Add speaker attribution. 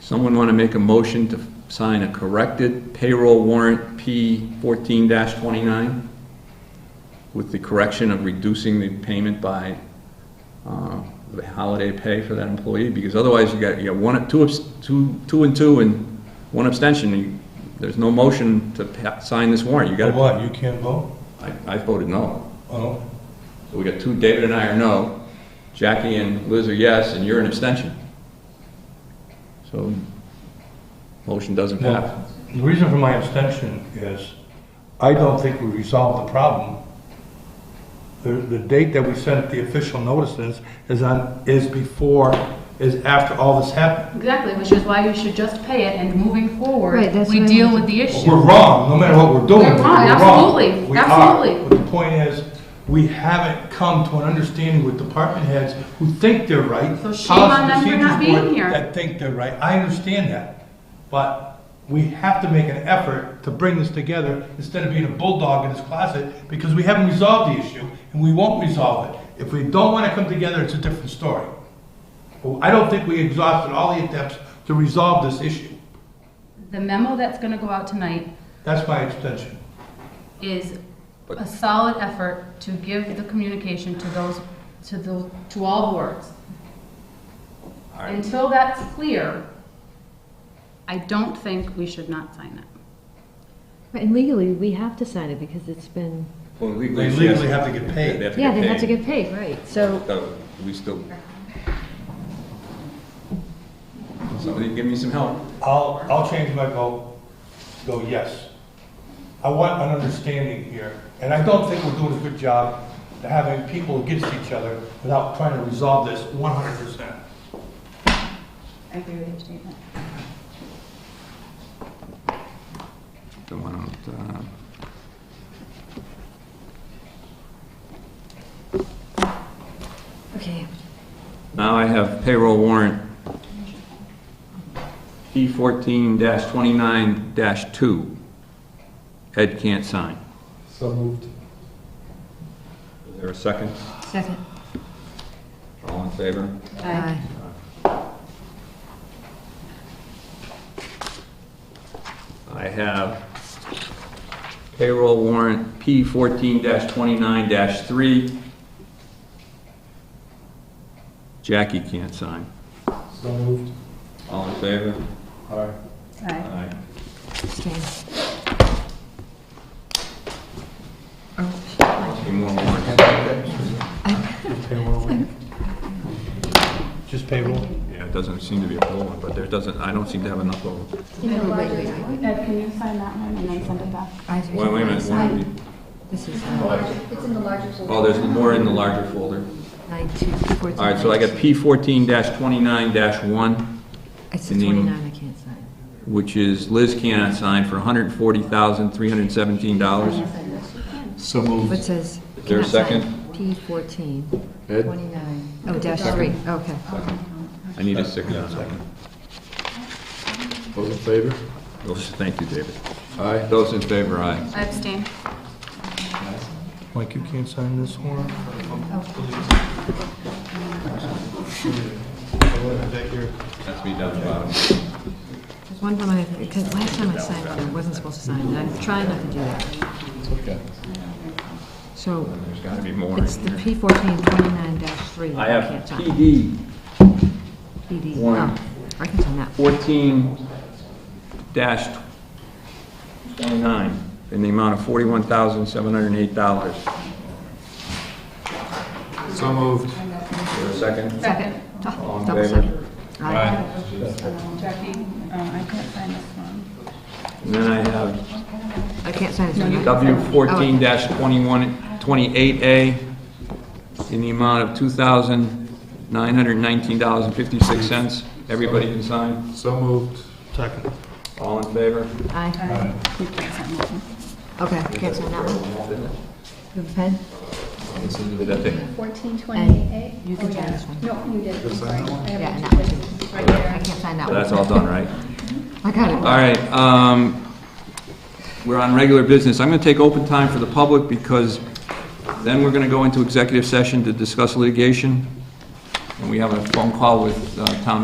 Speaker 1: Someone want to make a motion to sign a corrected payroll warrant P fourteen twenty-nine? With the correction of reducing the payment by, uh, the holiday pay for that employee, because otherwise you got, you got one, two, abs- two, two and two and one abstention. You- There's no motion to pa- sign this warrant. You
Speaker 2: For
Speaker 1: got,
Speaker 2: what, you can't vote?
Speaker 1: I, I voted no.
Speaker 2: Oh,
Speaker 1: So we got two, David and I are no, Jackie and Liz are yes, and you're an abstention. So, motion doesn't pass.
Speaker 2: well, the reason for my abstention is, I don't think we resolved the problem. The, the date that we sent the official notices is on, is before, is after all this happened.
Speaker 3: Exactly, which is why you should just pay it and moving forward,
Speaker 4: Right, that's
Speaker 3: we
Speaker 4: what I
Speaker 3: deal
Speaker 4: mean.
Speaker 3: with the issue.
Speaker 2: We're wrong, no matter what we're doing.
Speaker 3: We're wrong, absolutely,
Speaker 2: We are.
Speaker 3: absolutely.
Speaker 2: But the point is, we haven't come to an understanding with department heads who think they're right.
Speaker 3: So shame on
Speaker 2: policy
Speaker 3: them
Speaker 2: procedures
Speaker 3: for not being
Speaker 2: board
Speaker 3: here.
Speaker 2: That think they're right, I understand that, but we have to make an effort to bring this together instead of being a bulldog in this closet, because we haven't resolved the issue, and we won't resolve it. If we don't wanna come together, it's a different story. Well, I don't think we exhausted all the attempts to resolve this issue,
Speaker 3: The memo that's gonna go out tonight
Speaker 2: that's my extension.
Speaker 3: is a solid effort to give the communication to those, to the, to all boards. Until that's clear, I don't think we should not sign it.
Speaker 4: Right, And legally, we have to sign it because it's been,
Speaker 1: Well,
Speaker 2: They legally have to get paid.
Speaker 1: have to
Speaker 4: yeah,
Speaker 1: get
Speaker 4: they have to
Speaker 1: paid.
Speaker 4: get paid, right, so,
Speaker 1: So, We still. Somebody give me some help.
Speaker 2: I'll, I'll change my vote, go yes. I want an understanding here, and I don't think we're doing a good job to having people against each other without trying to resolve this one hundred percent.
Speaker 3: I agree with your statement.
Speaker 1: So why don't, uh,
Speaker 4: okay.
Speaker 1: Now I have payroll warrant P fourteen twenty-nine two. Ed can't sign.
Speaker 2: So moved.
Speaker 1: Is there a second?
Speaker 4: Second.
Speaker 1: All in favor?
Speaker 3: Aye.
Speaker 1: I have payroll warrant P fourteen twenty-nine three. Jackie can't sign.
Speaker 2: So moved.
Speaker 1: All in favor?
Speaker 2: All right.
Speaker 3: Aye.
Speaker 1: Aye.
Speaker 4: Abstain. Oh,
Speaker 1: Two more warrants.
Speaker 2: Just payroll?
Speaker 1: Yeah, it doesn't seem to be a full one, but there doesn't, I don't seem to have enough of them.
Speaker 3: Ed, can you sign that one and then send it back?
Speaker 1: Wait, wait a minute, one,
Speaker 4: Sign. This is uh,
Speaker 5: It's in the larger folder.
Speaker 1: oh, there's more in the larger folder.
Speaker 4: nine, two, fourteen.
Speaker 1: All right, so I got P fourteen twenty-nine one,
Speaker 4: It's
Speaker 1: the name-
Speaker 4: twenty-nine, I can't sign.
Speaker 1: which is Liz cannot sign for hundred and forty thousand, three hundred and seventeen dollars.
Speaker 2: So
Speaker 4: What
Speaker 2: moved.
Speaker 4: says?
Speaker 1: Is there a
Speaker 4: cannot sign.
Speaker 1: second?
Speaker 4: P fourteen,
Speaker 1: Ed?
Speaker 4: twenty-nine, oh, dash three, okay.
Speaker 1: I need a second on that one.
Speaker 6: Those in favor?
Speaker 1: Those- Thank you, David.
Speaker 6: Aye.
Speaker 1: Those in favor, aye.
Speaker 3: I abstain.
Speaker 2: Mike, you can't sign this one?
Speaker 1: That's me down the bottom.
Speaker 4: There's one time I, because last time I signed, it, I wasn't supposed to sign, and I'm trying not to do that.
Speaker 6: Okay.
Speaker 4: So,
Speaker 1: There's gotta be more
Speaker 4: it's the
Speaker 1: in here.
Speaker 4: P fourteen, twenty-nine dash three,
Speaker 1: I
Speaker 4: I
Speaker 1: have
Speaker 4: can't sign.
Speaker 1: PD
Speaker 4: PD,
Speaker 1: Warren.
Speaker 4: oh, I can sign that.
Speaker 1: fourteen dash twenty-nine in the amount of forty-one thousand, seven hundred and eight dollars.
Speaker 6: So moved.
Speaker 1: Is there a second?
Speaker 3: Second.
Speaker 1: All in
Speaker 4: Double
Speaker 1: favor?
Speaker 4: second. Aye.
Speaker 3: Jackie, um, I can't sign this one.
Speaker 1: And then I have
Speaker 4: I can't sign this one. right?
Speaker 1: W fourteen dash twenty-one, twenty-eight A in the amount of two thousand nine hundred nineteen dollars and fifty-six cents. Everybody can sign?
Speaker 6: So moved.
Speaker 2: Second.
Speaker 1: All in favor?
Speaker 4: Aye.
Speaker 3: You can't sign this one.
Speaker 4: Okay, can't sign that one. You have a pen?
Speaker 1: That thing.
Speaker 5: Fourteen twenty-eight?
Speaker 4: You can sign this one.
Speaker 5: No, you did, I'm sorry. I have
Speaker 4: Yeah,
Speaker 5: it
Speaker 4: and that one too.
Speaker 5: right
Speaker 4: I
Speaker 5: there.
Speaker 4: can't sign that
Speaker 1: So
Speaker 4: one.
Speaker 1: That's all done, right?
Speaker 4: I got it.
Speaker 1: All right, um, we're on regular business. I'm gonna take open time for the public because then we're gonna go into executive session to discuss litigation. And we have a phone call with uh, town